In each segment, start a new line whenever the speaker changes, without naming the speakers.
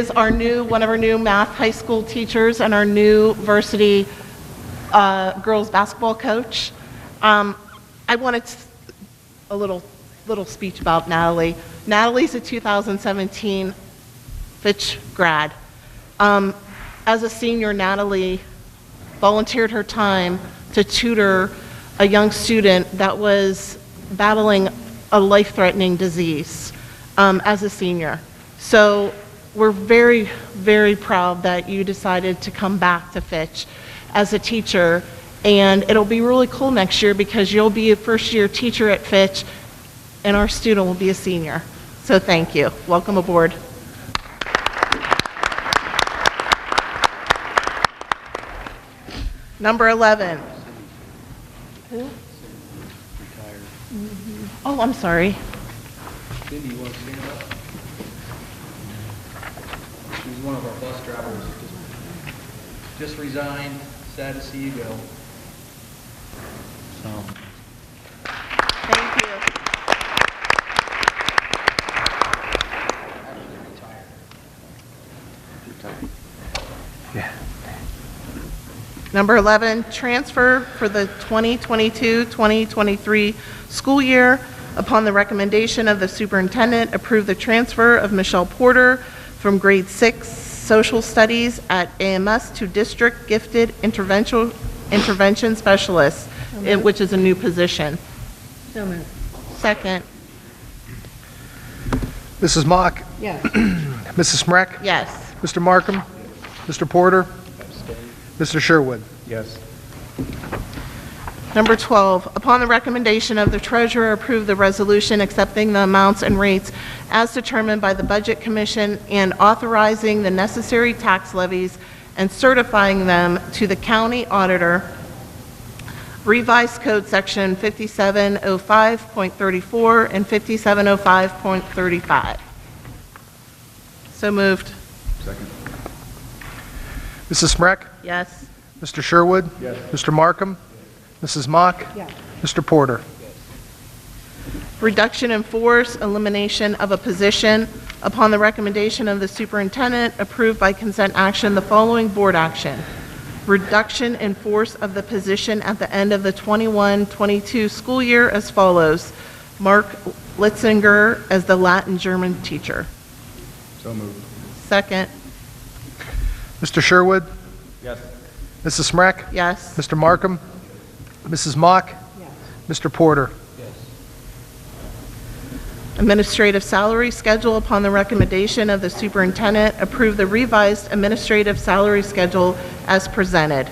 is our new, one of our new math high school teachers and our new varsity uh, girls basketball coach. Um, I wanted to- a little, little speech about Natalie. Natalie's a 2017 Fitch grad. Um, As a senior, Natalie volunteered her time to tutor a young student that was battling a life-threatening disease um, as a senior. So we're very, very proud that you decided to come back to Fitch as a teacher, and it'll be really cool next year because you'll be a first-year teacher at Fitch, and our student will be a senior. So thank you. Welcome aboard. Number 11. Who? Oh, I'm sorry.
Cindy, you want to stand up? She was one of our bus drivers, just- just resigned, sad to see you go. So,
Thank you.
actually retired.
Number 11, transfer for the 2022-2023 school year. Upon the recommendation of the superintendent, approve the transfer of Michelle Porter from grade 6 social studies at AMS to district gifted intervention intervention specialist, eh, which is a new position.
So moved.
Second,
Mrs. Mock,
Yes.
Mrs. Smrek,
yes.
Mr. Markham, Mr. Porter, Mr. Sherwood.
Yes.
Number 12, upon the recommendation of the treasurer, approve the resolution accepting the amounts and rates as determined by the Budget Commission and authorizing the necessary tax levies and certifying them to the county auditor. Revised Code Section 5705.34 and 5705.35. So moved.
Mrs. Smrek,
Yes.
Mr. Sherwood. Mr. Markham, Mrs. Mock,
Yes.
Mr. Porter.
Reduction in force, elimination of a position. Upon the recommendation of the superintendent, approved by consent action, the following board action. Reduction in force of the position at the end of the 21-22 school year as follows. Mark Litzinger as the Latin German teacher.
So moved.
Second,
Mr. Sherwood,
Yes.
Mrs. Smrek,
yes.
Mr. Markham, Mrs. Mock,
Yes.
Mr. Porter.
Yes.
Administrative salary schedule, upon the recommendation of the superintendent, approve the revised administrative salary schedule as presented.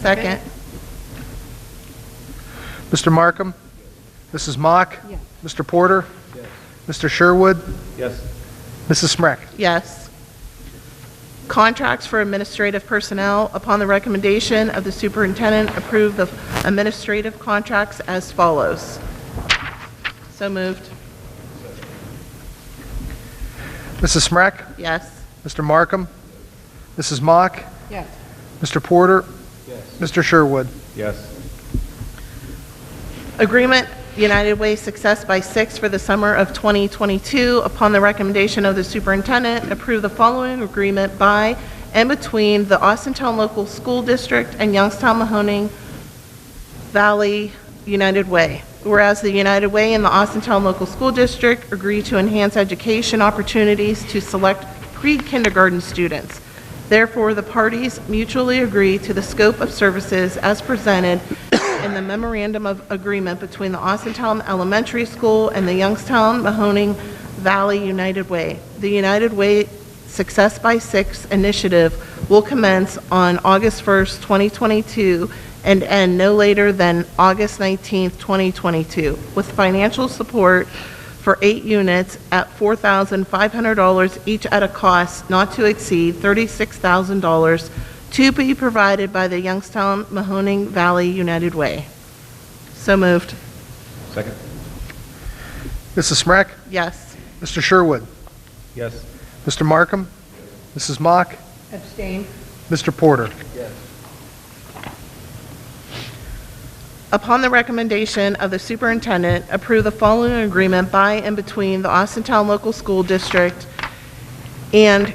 Second,
Mr. Markham, Mrs. Mock,
Yes.
Mr. Porter,
Yes.
Mr. Sherwood,
Yes.
Mrs. Smrek.
Yes. Contracts for administrative personnel, upon the recommendation of the superintendent, approve the administrative contracts as follows. So moved.
Mrs. Smrek,
Yes.
Mr. Markham, Mrs. Mock,
Yes.
Mr. Porter,
Yes.
Mr. Sherwood.
Yes.
Agreement United Way Success by Six for the summer of 2022. Upon the recommendation of the superintendent, approve the following agreement by and between the Austintown Local School District and Youngstown Mahoning Valley United Way. Whereas the United Way and the Austintown Local School District agree to enhance education opportunities to select pre-kindergarten students. Therefore, the parties mutually agree to the scope of services as presented in the memorandum of agreement between the Austintown Elementary School and the Youngstown Mahoning Valley United Way. The United Way Success by Six initiative will commence on August 1st, 2022, and end no later than August 19th, 2022, with financial support for eight units at $4,500 each at a cost not to exceed $36,000 to be provided by the Youngstown Mahoning Valley United Way. So moved.
Second.
Mrs. Smrek,
Yes.
Mr. Sherwood,
Yes.
Mr. Markham, Mrs. Mock,
Abstain.
Mr. Porter.
Yes.
Upon the recommendation of the superintendent, approve the following agreement by and between the Austintown Local School District and